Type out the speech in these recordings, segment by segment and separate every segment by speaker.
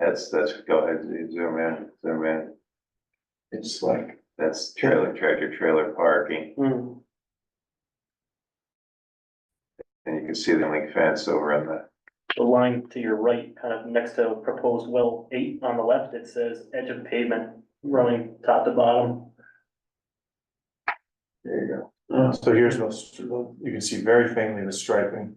Speaker 1: That's, that's, go ahead, zoom in, zoom in.
Speaker 2: It's like,
Speaker 1: That's trailer, tractor trailer parking.
Speaker 2: mm,
Speaker 1: And you can see the link fence over on the,
Speaker 3: The line to your right, kind of next to proposed well eight on the left, it says edge of pavement running top to bottom.
Speaker 2: there you
Speaker 4: Uh,
Speaker 3: Uh,
Speaker 4: So here's the, str- you can see very faintly the striping,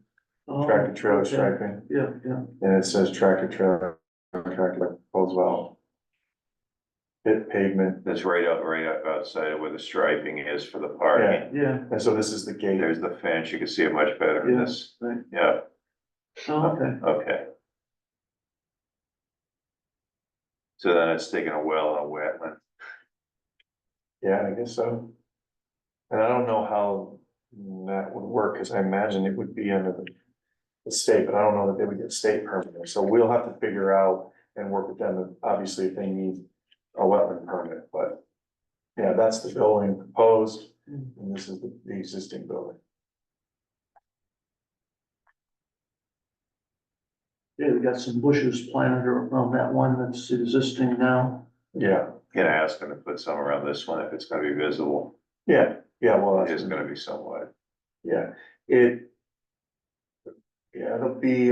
Speaker 3: oh,
Speaker 2: go.
Speaker 4: tractor trailer striping,
Speaker 2: Yeah, yeah.
Speaker 4: and it says tractor trailer, tractor pulls well. Pit pavement,
Speaker 1: that's right out, right up outside of where the striping is for the parking.
Speaker 2: Yeah,
Speaker 4: and so this is the gate.
Speaker 1: There's the fence, you can see it much better in this.
Speaker 2: Yeah, right.
Speaker 1: Yeah,
Speaker 2: oh, okay,
Speaker 1: okay. So then it's taking a well and a wetland.
Speaker 4: Yeah, I guess so. And I don't know how that would work, because I imagine it would be under the. The state, but I don't know that they would get state permit, there. so we'll have to figure out and work with them, obviously if they need a wetland permit, but. Yeah, that's the building proposed, and this is the, the existing building.
Speaker 2: yeah, we got some bushes planted around that one that's existing now.
Speaker 4: Yeah,
Speaker 1: Can I ask them to put some around this one if it's gonna be visible?
Speaker 4: yeah, yeah, well,
Speaker 1: It
Speaker 4: that's,
Speaker 1: is gonna be somewhat.
Speaker 4: yeah, it. Yeah, it'll be,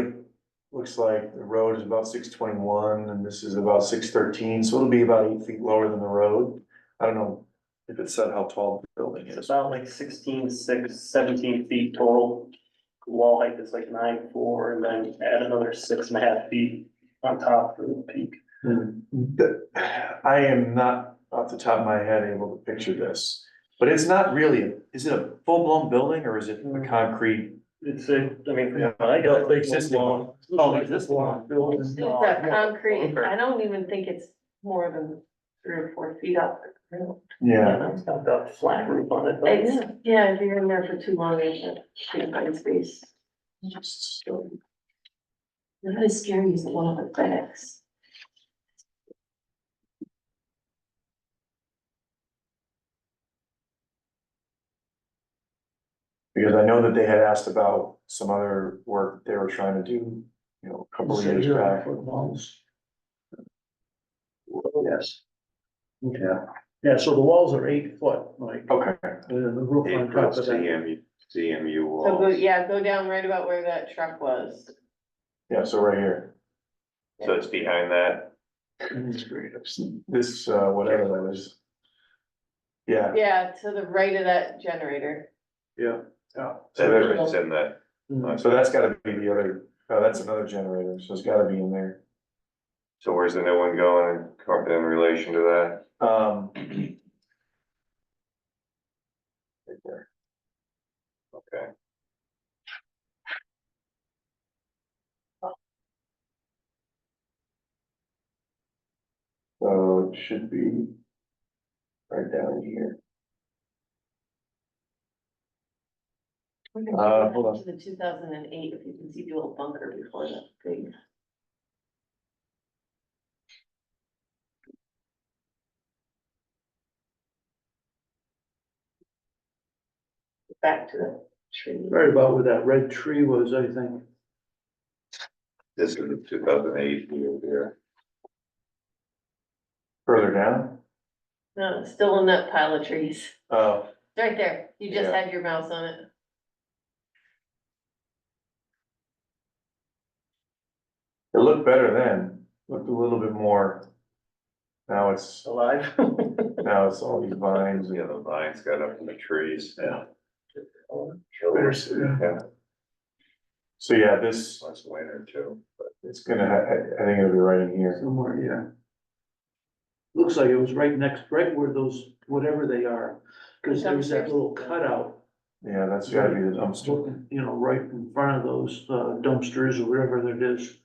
Speaker 4: looks like the road is about six twenty-one and this is about six thirteen, so it'll be about eight feet lower than the road. I don't know if it said how tall the building
Speaker 3: It's
Speaker 4: is.
Speaker 3: about like sixteen, six, seventeen feet total. Wall height is like nine, four, and then add another six and a half feet on top for the peak.
Speaker 4: The- I am not off the top of my head able to picture this, but it's not really, is it a full-blown building or is it a concrete?
Speaker 3: It's a, I mean.
Speaker 4: Yeah.
Speaker 3: I got
Speaker 4: The existing one.
Speaker 3: Oh, existing one.
Speaker 2: Building.
Speaker 5: It's that concrete,
Speaker 3: okay.
Speaker 5: I don't even think it's more than three or four feet up.
Speaker 4: Yeah,
Speaker 3: It's got the flat roof on it. but-
Speaker 5: It's, Oh, yeah, if you're in there for too long, it's a big white space. Really scary is the one with the backs.
Speaker 4: because I know that they had asked about some other work they were trying to do, you know, a couple of years back.
Speaker 2: Yes. Yeah, yeah, so the walls are eight foot, like, uh,
Speaker 4: Okay,
Speaker 2: the roof on top of that.
Speaker 1: CMU, CMU
Speaker 5: So go,
Speaker 1: walls.
Speaker 5: yeah, go down right about where that truck was.
Speaker 4: yeah, so right here,
Speaker 1: So it's behind that.
Speaker 4: this, uh, whatever that was. Yeah,
Speaker 5: Yeah, to the right of that generator.
Speaker 2: Yeah.
Speaker 1: So it's in that.
Speaker 2: Mm.
Speaker 4: so that's gotta be the other, oh, that's another generator, so it's gotta be in there.
Speaker 1: So where's the new one going in in relation to that?
Speaker 4: Um. Right there.
Speaker 1: Okay.
Speaker 4: So it should be right down here. Uh, hold on.
Speaker 5: To the two thousand and eight, if you can see the old bunker before that thing. Back to the tree.
Speaker 2: Right about where that red tree was, I think.
Speaker 1: This is the two thousand eight view here.
Speaker 4: Further down?
Speaker 5: No, it's still in that pile of trees.
Speaker 4: Oh,
Speaker 5: Right there. You just
Speaker 4: Yeah.
Speaker 5: had your mouse on it.
Speaker 4: it looked better then, looked a little bit more. Now it's,
Speaker 3: Alive.
Speaker 4: now it's all these vines,
Speaker 1: Yeah,
Speaker 4: and-
Speaker 1: the vines got up in the trees. Yeah.
Speaker 2: Yeah.
Speaker 4: so yeah, this,
Speaker 1: Last winter too.
Speaker 4: it's gonna, ha- I, I think it'll be right in here.
Speaker 2: Somewhere, yeah. Looks like it was right next, right where those, whatever they are, because there was that little cutout.
Speaker 4: Yeah, that's gotta be the dumpster.
Speaker 2: You know, right in front of those uh, dumpsters or whatever it is.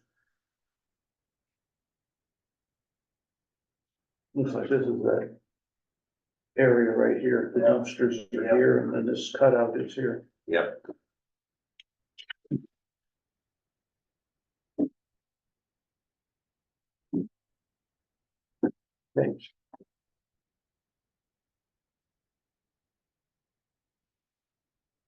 Speaker 2: Looks like this is that area right here, the dumpsters are here, and then this cutout is here.
Speaker 1: Yep.
Speaker 2: Thanks.